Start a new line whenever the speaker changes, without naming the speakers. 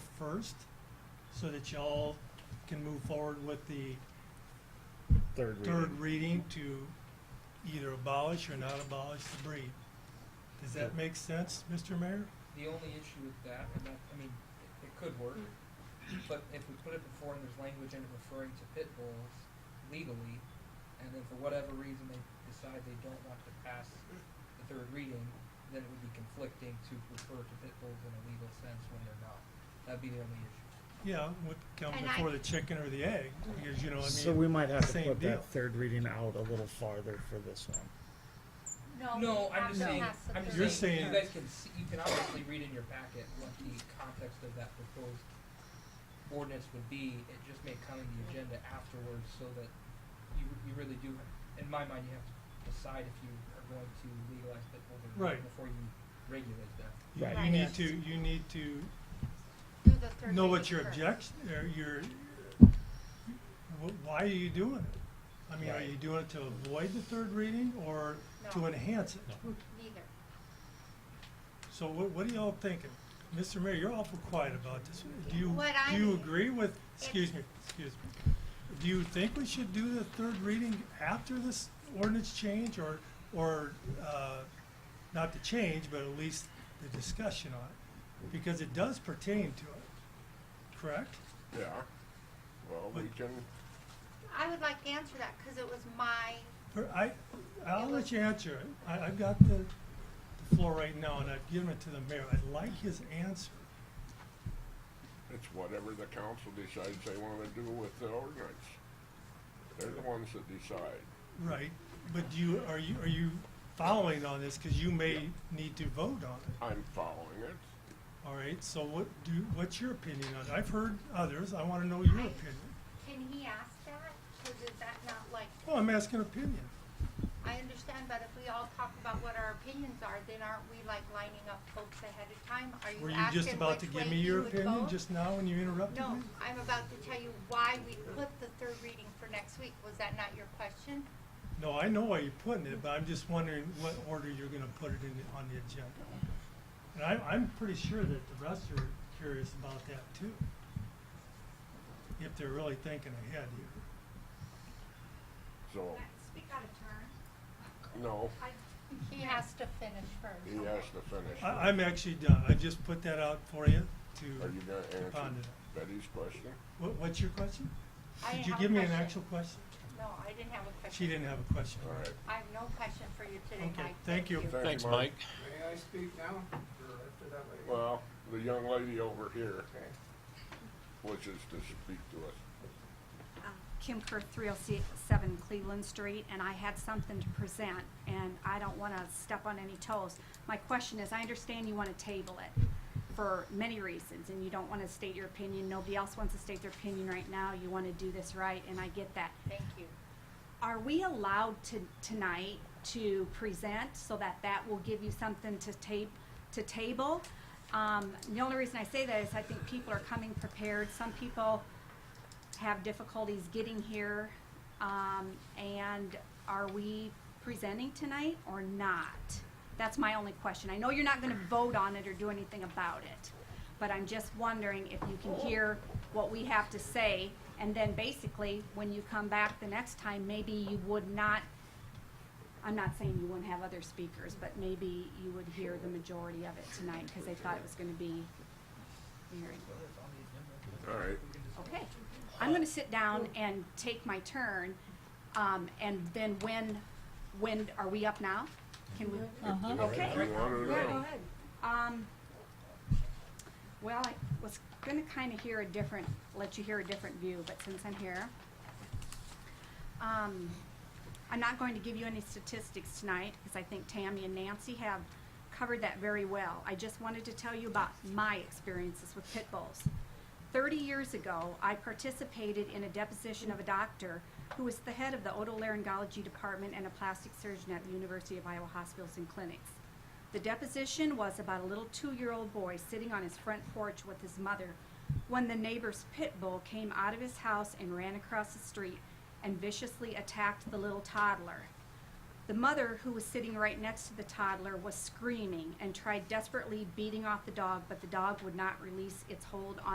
first, so that y'all can move forward with the
Third reading.
third reading to either abolish or not abolish the breed. Does that make sense, Mr. Mayor?
The only issue with that, and that, I mean, it, it could work, but if we put it before and there's language in it referring to pit bulls legally, and then for whatever reason they decide they don't want to pass the third reading, then it would be conflicting to refer to pit bulls in a legal sense when they're not. That'd be the only issue.
Yeah, would come
And I-
before the chicken or the egg, because you know,
So
I
we
mean,
might have to
same
put
deal.
that third reading out a little farther for this one.
No.
No,
we
I'm
have
just
to
saying,
pass the
I'm
You're
just saying,
third
saying-
you guys can see, you can obviously read in your packet what the context of that proposed ordinance would be, it just may come in the agenda afterwards, so that you, you really do, in my mind, you have to decide if you are going to legalize pit bulls or
Right.
not before you regulate them.
you
Right.
you need to, you need to
Do the third
know
reading
what your
first.
objection, or your, wh- why are you doing it? I mean, are
Right.
you doing it to avoid the third reading or to
No.
enhance it?
Neither.
So what, what are y'all thinking? Mr. Mayor, you're awful quiet about this. Do you,
What
do you
I'm-
agree with, excuse me, excuse me. Do you think we should do the third reading after this ordinance change or, or, uh, not the change, but at least the discussion on it? Because it does pertain to it, correct?
Yeah, well, we can,
I would like to answer that because it was my,
Or I, I'll
It
let
was-
you answer it. I, I've got the the floor right now and I've given it to the mayor. I'd like his answer.
it's whatever the council decides they wanna do with the ordinance. They're the ones that decide.
Right, but do you, are you, are you following on this, cause you may need to vote on it,
I'm following it.
alright, so what do, what's your opinion on it? I've heard others, I wanna know your opinion.
can he ask that? Because is that not like,
Well, I'm asking opinion,
I understand, but if we all talk about what our opinions are, then aren't we like lining up folks ahead of time? Are
were
you
you
asking
just about to
which
give
way
me
you
your
would
opinion
vote?
just now when you interrupted me?
No, I'm about to tell you why we put the third reading for next week. Was that not your question?
No, I know why you're putting it, but I'm just wondering what order you're gonna put it in, the- on the agenda. And I, I'm pretty sure that the rest are curious about that too. If they're really thinking ahead here.
So,
Speak out of turn.
no,
He has to finish
he
first.
has to finish.
I, I'm actually done. I just put that out for you
Are you
to,
gonna answer
ponder it.
Betty's question?
what, what's your question?
I
Did
didn't
you
have a
give me an
question.
actual question?
No, I didn't have a question.
She didn't have a question.
All right.
I have no question for you today,
Okay,
Mike.
thank you.
Thank you,
Thanks, Mike.
May I speak now or after that lady?
Well, the young lady over here
Okay.
wishes to speak to us.
Um, Kim Kerr, 307 Cleveland Street, and I had something to present, and I don't want to step on any toes. My question is, I understand you want to table it for many reasons, and you don't want to state your opinion. Nobody else wants to state their opinion right now. You want to do this right, and I get that.
Thank you.
Are we allowed to, tonight, to present so that that will give you something to tape, to table? Um, the only reason I say that is I think people are coming prepared. Some people have difficulties getting here. Um, and are we presenting tonight or not? That's my only question. I know you're not gonna vote on it or do anything about it, but I'm just wondering if you can hear what we have to say. And then basically, when you come back the next time, maybe you would not, I'm not saying you wouldn't have other speakers, but maybe you would hear the majority of it tonight, cause they thought it was gonna be hearing.
All right,
Okay, I'm gonna sit down and take my turn, um, and then when, when, are we up now? Can we,
if you
okay,
wanna know,
um, well, I was gonna kinda hear a different, let you hear a different view, but since I'm here. Um, I'm not going to give you any statistics tonight, cause I think Tammy and Nancy have covered that very well. I just wanted to tell you about my experiences with pit bulls. 30 years ago, I participated in a deposition of a doctor who was the head of the otolaryngology department and a plastic surgeon at the University of Iowa Hospitals and Clinics. The deposition was about a little two year old boy sitting on his front porch with his mother when the neighbor's pit bull came out of his house and ran across the street and viciously attacked the little toddler. The mother, who was sitting right next to the toddler, was screaming and tried desperately beating off the dog, but the dog would not release its hold on.